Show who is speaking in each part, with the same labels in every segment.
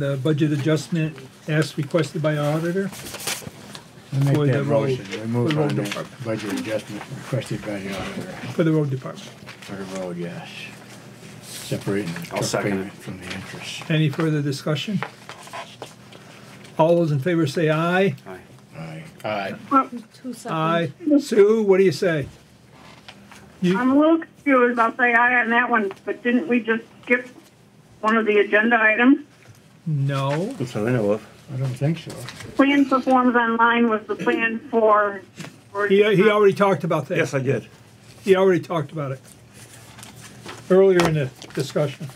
Speaker 1: The budget adjustment as requested by our auditor.
Speaker 2: I make
Speaker 1: For the
Speaker 2: that
Speaker 1: road-
Speaker 2: motion, we
Speaker 1: for
Speaker 2: move
Speaker 1: the
Speaker 2: on
Speaker 1: road
Speaker 2: the
Speaker 1: department.
Speaker 2: budget adjustment requested by the auditor
Speaker 1: for the road department.
Speaker 2: for the road, yes. Separating the
Speaker 3: I'll
Speaker 2: truck
Speaker 3: second
Speaker 2: payment
Speaker 3: it.
Speaker 2: from the interest.
Speaker 1: Any further discussion? All those in favor say aye.
Speaker 3: Aye.
Speaker 2: Aye. Aye.
Speaker 4: Two seconds.
Speaker 1: Aye. Sue, what do you say?
Speaker 5: I'm a little confused. I'll say aye on that one, but didn't we just skip one of the agenda items?
Speaker 1: No.
Speaker 3: That's what I know of.
Speaker 2: I don't think so.
Speaker 5: Plan performs online was the plan for. for-
Speaker 1: He, he already talked about that.
Speaker 3: Yes, I did.
Speaker 1: He already talked about it earlier in the discussion.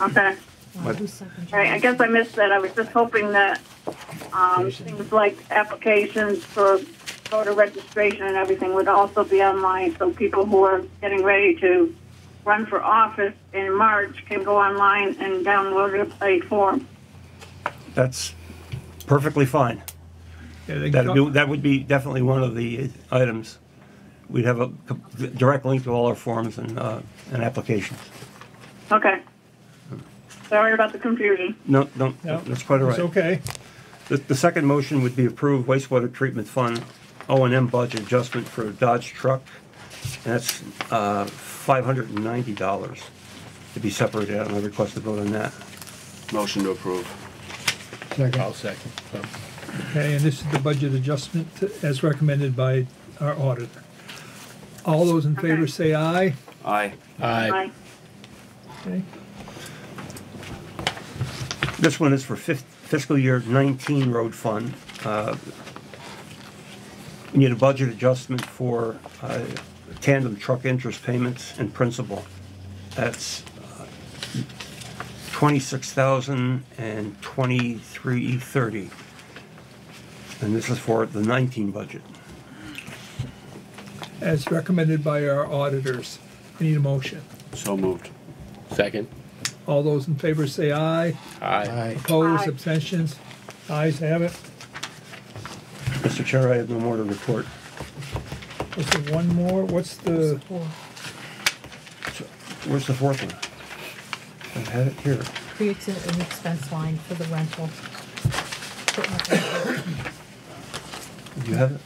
Speaker 5: Okay.
Speaker 4: Wow, two seconds.
Speaker 5: All right, I guess I missed that. I was just hoping that, um, things like applications for voter registration and everything would also be online, so people who are getting ready to run for office in March can go online and download a paid form.
Speaker 3: That's perfectly fine.
Speaker 1: Yeah, they
Speaker 3: That'd be,
Speaker 1: talk-
Speaker 3: that would be definitely one of the items. We'd have a co- direct link to all our forms and, uh, and applications.
Speaker 5: Okay. Sorry about the confusion.
Speaker 3: No, no,
Speaker 1: No,
Speaker 3: that's quite all
Speaker 1: It's
Speaker 3: right.
Speaker 1: okay.
Speaker 3: The, the second motion would be approve wastewater treatment fund O and M budget adjustment for Dodge truck. And that's, uh, five hundred and ninety dollars to be separated out, and I request a vote on that.
Speaker 6: Motion to approve.
Speaker 2: Second.
Speaker 6: second.
Speaker 1: Okay, and this is the budget adjustment as recommended by our auditor. All those in favor
Speaker 5: Okay.
Speaker 1: say aye.
Speaker 6: Aye.
Speaker 5: Bye.
Speaker 1: Okay.
Speaker 3: This one is for fif- fiscal year 19 road fund. Uh, We need a budget adjustment for uh, tandem truck interest payments and principal. That's uh, 26,023.30. And this is for the 19 budget.
Speaker 1: As recommended by our auditors. Need a motion.
Speaker 6: So moved.
Speaker 7: Second.
Speaker 1: All those in favor say aye.
Speaker 7: Aye.
Speaker 2: Aye.
Speaker 1: Opposed,
Speaker 5: Aye.
Speaker 1: abstentions? Ayes have it.
Speaker 3: Mr. Chair, I have no more to report.
Speaker 1: Was there one more? What's the,
Speaker 4: Four.
Speaker 3: Where's the fourth one? I had it here.
Speaker 4: Creates a- an expense line for the rental.
Speaker 3: Do you have it?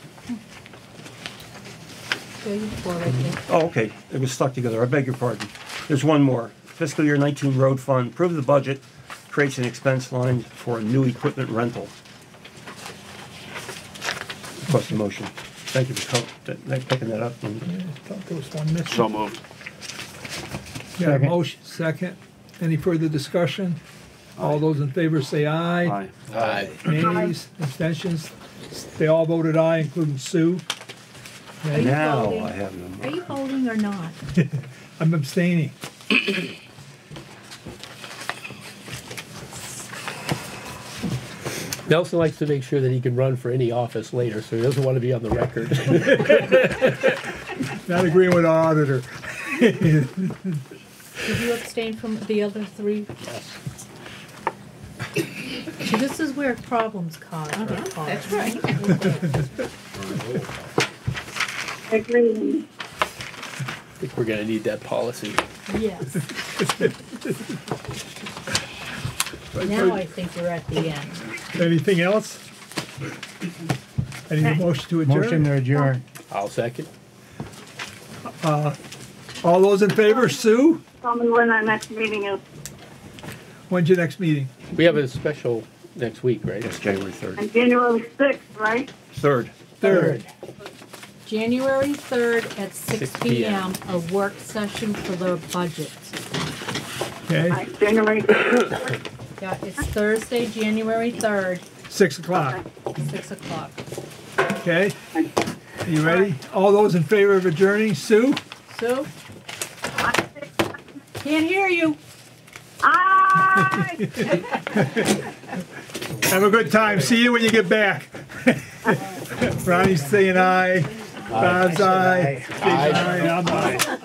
Speaker 4: There you go, right there.
Speaker 3: Oh, okay, it was stuck together, I beg your pardon. There's one more. Fiscal year 19 road fund, approve the budget, creates an expense line for a new equipment rental. Request the motion. Thank you for co- th- th- picking that up.
Speaker 1: I
Speaker 3: and-
Speaker 1: thought there was one
Speaker 6: So
Speaker 1: missing.
Speaker 6: moved.
Speaker 1: Got a
Speaker 2: Second.
Speaker 1: motion, second. Any further discussion? All those in favor say aye.
Speaker 6: Aye.
Speaker 7: Aye.
Speaker 1: Nays, abstentions? They all voted aye, including Sue.
Speaker 4: Are you
Speaker 3: Now
Speaker 4: voting?
Speaker 3: I have no more.
Speaker 4: Are you voting or not?
Speaker 1: I'm abstaining.
Speaker 7: Nelson likes to make sure that he can run for any office later, so he doesn't want to be on the record.
Speaker 1: Not agreeing with our auditor.
Speaker 4: Did you abstain from the other three? Yes. See, this is where problems cause. Uh-huh. That's right.
Speaker 5: Agreed.
Speaker 7: I think we're gonna need that policy.
Speaker 4: Yes. Now I think we're at the end.
Speaker 1: Anything else? Any motion to
Speaker 2: Motion
Speaker 1: adjourn?
Speaker 2: to adjourn.
Speaker 7: I'll second.
Speaker 1: All those in favor, Sue?
Speaker 5: Tell me when our next meeting is.
Speaker 1: When's your next meeting?
Speaker 7: We have a special next week, right?
Speaker 3: It's January 3rd.
Speaker 5: And January 6th, right?
Speaker 3: 3rd.
Speaker 1: Third.
Speaker 4: January 3rd at 6
Speaker 7: PM.
Speaker 4: PM, a work session for the budget.
Speaker 1: Okay,
Speaker 5: Right, January 6th.
Speaker 4: Yeah, it's Thursday, January 3rd,
Speaker 1: six o'clock,
Speaker 4: 6 o'clock.
Speaker 1: okay? Are you ready? All those in favor of adjourning, Sue?
Speaker 4: Sue? Can't hear you.
Speaker 5: Aye!
Speaker 1: Have a good time. See you when you get back. Ronnie's saying aye. Bob's aye. Dave's aye. I'm aye.